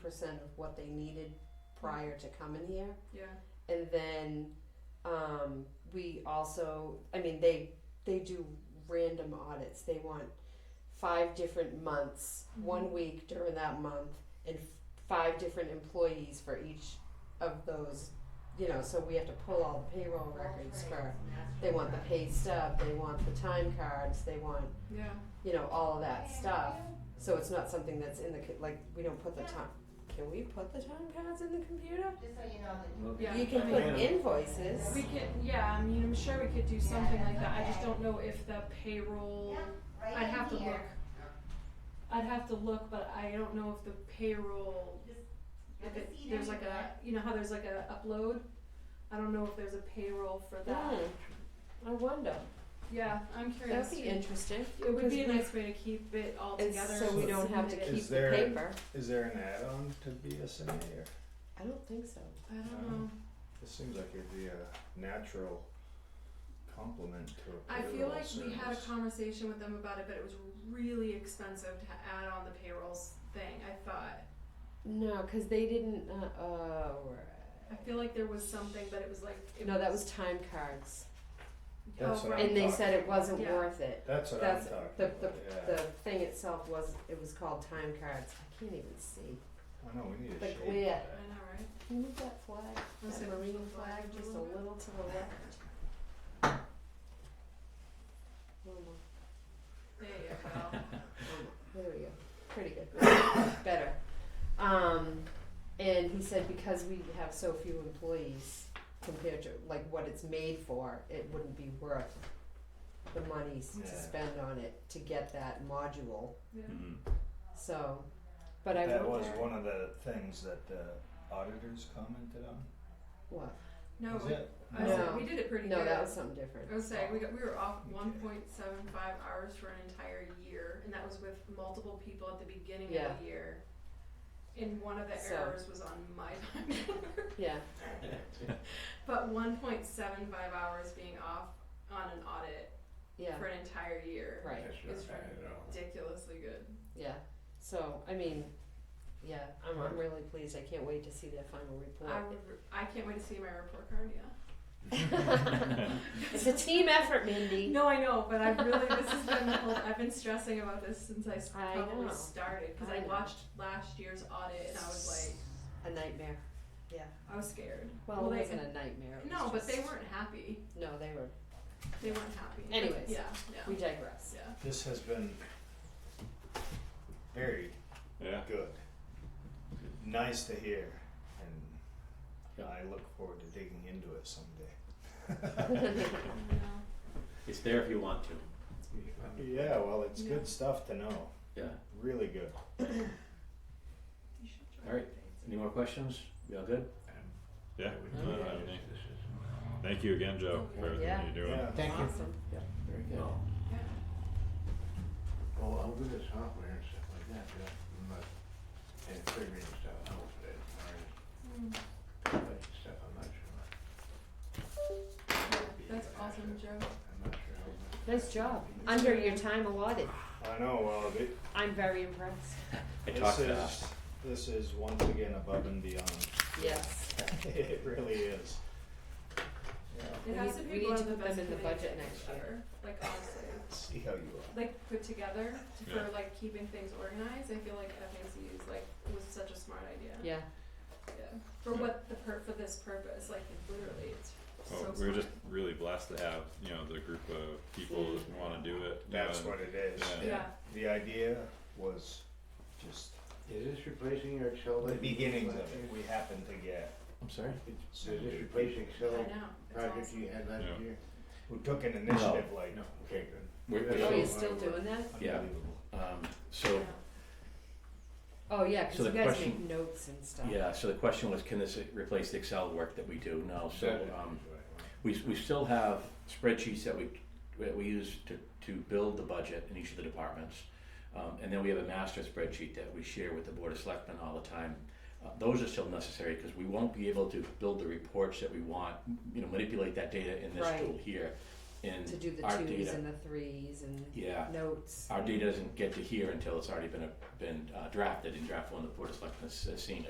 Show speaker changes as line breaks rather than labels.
percent of what they needed prior to coming here.
Yeah,
And then um, we also, I mean, they they do random audits. They want five different months, one
Mhm.
week during that month, and f- five different employees for each of those. You know, so we have to pull all the payroll records for. They want the pay stub. They want the time cards. They want
yeah,
you know all of that stuff. So it's not something that's in the co- like we don't put the time. Can we put the time cards in the computer?
Just so you know that.
yeah.
You can put
Yeah.
invoices.
We could, yeah, I mean, I'm sure we could do something like that, I just don't know if the payroll,
Right
I'd have to
in here.
look. I'd have to look, but I don't know if the payroll, if it, there's like a, you know how there's like a upload? I don't know if there's a payroll for that,
Hmm, I wonder.
yeah, I'm curious.
That'd be
too.
interesting.
It would be a
Because
nice way to keep it all
we- And
together.
so we don't have to
submit it.
keep
Is
the
there-
paper.
Is there an add-on to BSNA or?
I don't think so.
I don't know,
This seems like it'd be a natural complement to a
I feel
payroll
like we had a
service.
conversation with them about it, but it was really expensive to add on the payrolls thing, I thought.
No, because they didn't. Uh, oh, right.
I feel like there was something, but it was like it
No, that was time cards,
That's
oh,
what
right.
and they said it wasn't
Yeah.
worth it.
That's what I'm
That's
talking
the
about,
the
Oh, yeah.
the thing itself was it was called time cards. I can't even see.
I know, we need
the
a shape of
glare.
I
that.
know, right?
Can you move that flag,
Was
that
it
marine
the
flag,
flag a
just a
little bit?
little to the left? One more.
There you go.
Um, There we go. Pretty good. Better. Um, and he said because we have so few employees compared to like what it's made for, it wouldn't be worth the money s- to
Yeah.
spend on it to get that module.
Yeah.
So, but I
That
wonder
was one of the things that the auditors commented on.
what?
No,
Is
we,
it?
I was
No.
like, we did it pretty
No,
good.
that was something different.
I was saying we got we were off
Okay.
1.75 hours for an entire year, and that was with multiple people at the beginning
Yeah.
of the year. And one of the
So-
errors was on my time card.
Yeah.
but 1.75 hours being off on an audit
Yeah.
for an entire year
Right.
is ridiculously good.
Yeah. So I mean, yeah, I'm I'm really pleased. I can't wait to see that final
I
report.
would, I can't wait to see my report card. Yeah.
It's a team effort, Mindy.
No, I know, but I really this has been the whole. I've been stressing about this since I s-
I
probably
know.
started because
I
I,
know.
watched last year's audit and I was
A nightmare. Yeah.
like, I was scared.
Well,
Well,
it
they-
wasn't a nightmare. It
No,
was
but they
just-
weren't happy.
No, they were.
They weren't happy.
Anyways.
yeah, yeah,
We digress.
yeah.
This has been very
Yeah.
good. Nice to hear, and I look forward to digging into it someday.
No.
It's there if you want to.
yeah, well, it's
Yeah.
good stuff to know.
Yeah.
Really good.
You should try.
All right. Any more questions? You all good?
Yeah,
I don't
uh, thank you again, Joe, for
Mm-hmm.
everything
Yeah.
you're doing.
Yeah.
Thank you.
awesome.
Very good.
Oh,
Yeah.
well, I'll do the software and stuff like that, but, but, and figuring stuff out for that, or
Mm.
stuff, I'm not sure.
Yeah, That's awesome, Joe.
I'm not sure how much.
Nice job. Under your time allotted.
I know, well, it,
I'm very impressed.
I
this
talked
is,
fast.
this is once again above and beyond.
Yes.
It really is. Yeah,
It
We
has
need-
to
we
be
need
one
to
of the
put them
best
in the
committees
budget
I've
next year.
ever, Like honestly,
see how you are.
like put together to-
Yeah.
for like keeping things organized. I feel like FAC is like was such a smart idea.
Yeah.
Yeah. For
Yeah.
what the per for this purpose, like literally, it's so.
Well, Oh, we're
smart.
just really blessed to have, you know, the group of people that wanna do it. you know,
That's
and-
what it is.
yeah.
Yeah.
The idea was just
Is this replacing your Excel?
the
that you used
beginnings of
last
it,
year?
we happened to get,
I'm sorry.
Is this replacing
I
Excel
know. It's
project
awesome.
you had
Yeah.
last year?
who took an initiative like,
No, okay, good.
We're,
Yeah.
Oh,
we're
you're
so,
still doing that?
Yeah.
unbelievable.
um,
Yeah.
so
Oh, yeah, because
So
you
the
guys make
question-
notes and stuff.
yeah. So the question was, can this replace the Excel work that we do? No. So um, we we still have spreadsheets that we that we use to to build the budget in each of the departments, um, and then we have a master spreadsheet that we share with the board of selectmen all the time. Uh, those are still necessary because we won't be able to build the reports that we want. You know, manipulate that data in this
Right.
tool here. and
to do the
our
twos
data,
and the threes and
yeah,
notes.
our data doesn't get to here until it's already been, a- been uh, drafted in draft one, the board of selectmen has has seen it.